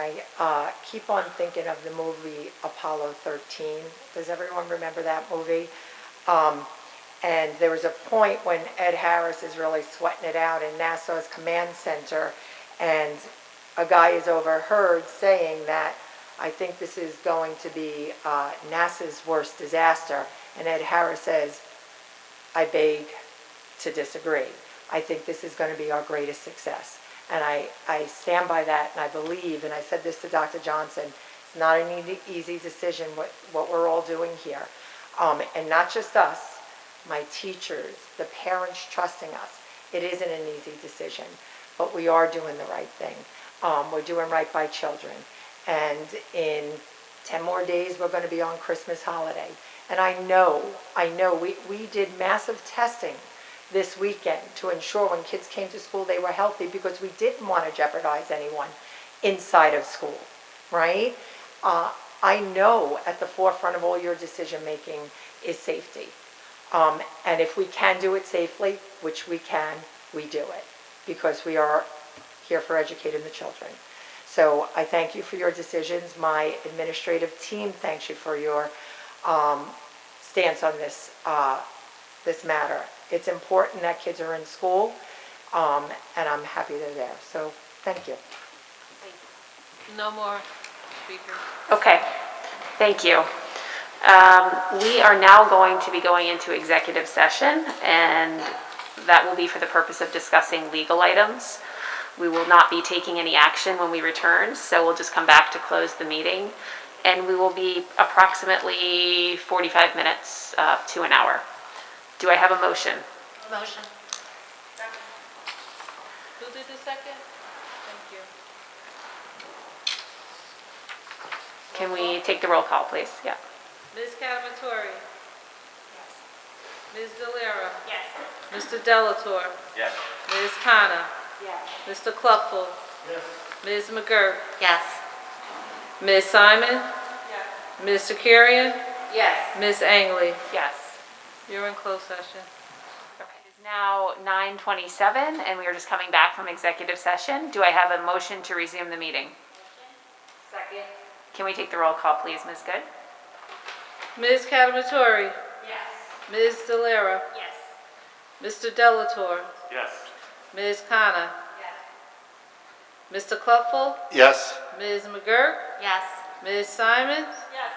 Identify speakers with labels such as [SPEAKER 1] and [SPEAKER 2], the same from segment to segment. [SPEAKER 1] I uh, keep on thinking of the movie Apollo 13. Does everyone remember that movie? Um, And there was a point when Ed Harris is really sweating it out in NASA's command center, and a guy is overheard saying that, I think this is going to be uh, NASA's worst disaster. And Ed Harris says, I beg to disagree. I think this is going to be our greatest success. And I, I stand by that and I believe, and I said this to Dr. Johnson, it's not an easy, easy decision what, what we're all doing here. Um, and not just us, my teachers, the parents trusting us. It isn't an easy decision, but we are doing the right thing. Um, we're doing right by children. And in 10 more days, we're going to be on Christmas holiday. And I know, I know, we, we did massive testing this weekend to ensure when kids came to school, they were healthy because we didn't want to jeopardize anyone inside of school, right? Uh, I know at the forefront of all your decision-making is safety. Um, and if we can do it safely, which we can, we do it because we are here for educating the children. So I thank you for your decisions. My administrative team thanks you for your um, stance on this, uh, this matter. It's important that kids are in school, um, and I'm happy they're there. So thank you.
[SPEAKER 2] No more speakers.
[SPEAKER 3] Okay, thank you. Um, We are now going to be going into executive session, and that will be for the purpose of discussing legal items. We will not be taking any action when we return, so we'll just come back to close the meeting, and we will be approximately 45 minutes uh, to an hour. Do I have a motion?
[SPEAKER 2] Motion. Who did the second? Thank you.
[SPEAKER 3] Can we take the roll call, please? Yeah.
[SPEAKER 2] Ms. Cavatori? Ms. Delera? Yes. Mr. Delator?
[SPEAKER 4] Yes.
[SPEAKER 2] Ms. Khanna? Yes. Mr. Cluckful? Yes. Ms. McGurk?
[SPEAKER 3] Yes.
[SPEAKER 2] Ms. Simon? Yes. Mr. Curran?
[SPEAKER 3] Yes.
[SPEAKER 2] Ms. Angley?
[SPEAKER 3] Yes.
[SPEAKER 2] You're in closed session.
[SPEAKER 3] It is now 9:27, and we are just coming back from executive session. Do I have a motion to resume the meeting?
[SPEAKER 2] Second.
[SPEAKER 3] Can we take the roll call, please, Ms. Good?
[SPEAKER 2] Ms. Cavatori?
[SPEAKER 3] Yes.
[SPEAKER 2] Ms. Delera?
[SPEAKER 3] Yes.
[SPEAKER 2] Mr. Delator?
[SPEAKER 4] Yes.
[SPEAKER 2] Ms. Khanna? Mr. Cluffell?
[SPEAKER 4] Yes.
[SPEAKER 2] Ms. McGurk?
[SPEAKER 3] Yes.
[SPEAKER 2] Ms. Simon? Yes.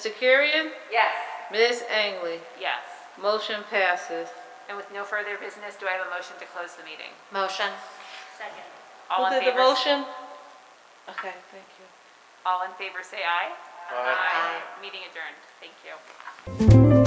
[SPEAKER 2] Mr. Curran?
[SPEAKER 3] Yes.
[SPEAKER 2] Ms. Angley?
[SPEAKER 3] Yes.
[SPEAKER 2] Motion passes.
[SPEAKER 3] And with no further business, do I have a motion to close the meeting?
[SPEAKER 2] Motion.
[SPEAKER 3] All in
[SPEAKER 2] Who did the
[SPEAKER 3] favor?
[SPEAKER 2] motion? Okay, thank you.
[SPEAKER 3] All in favor, say aye. Aye. Meeting adjourned. Thank you.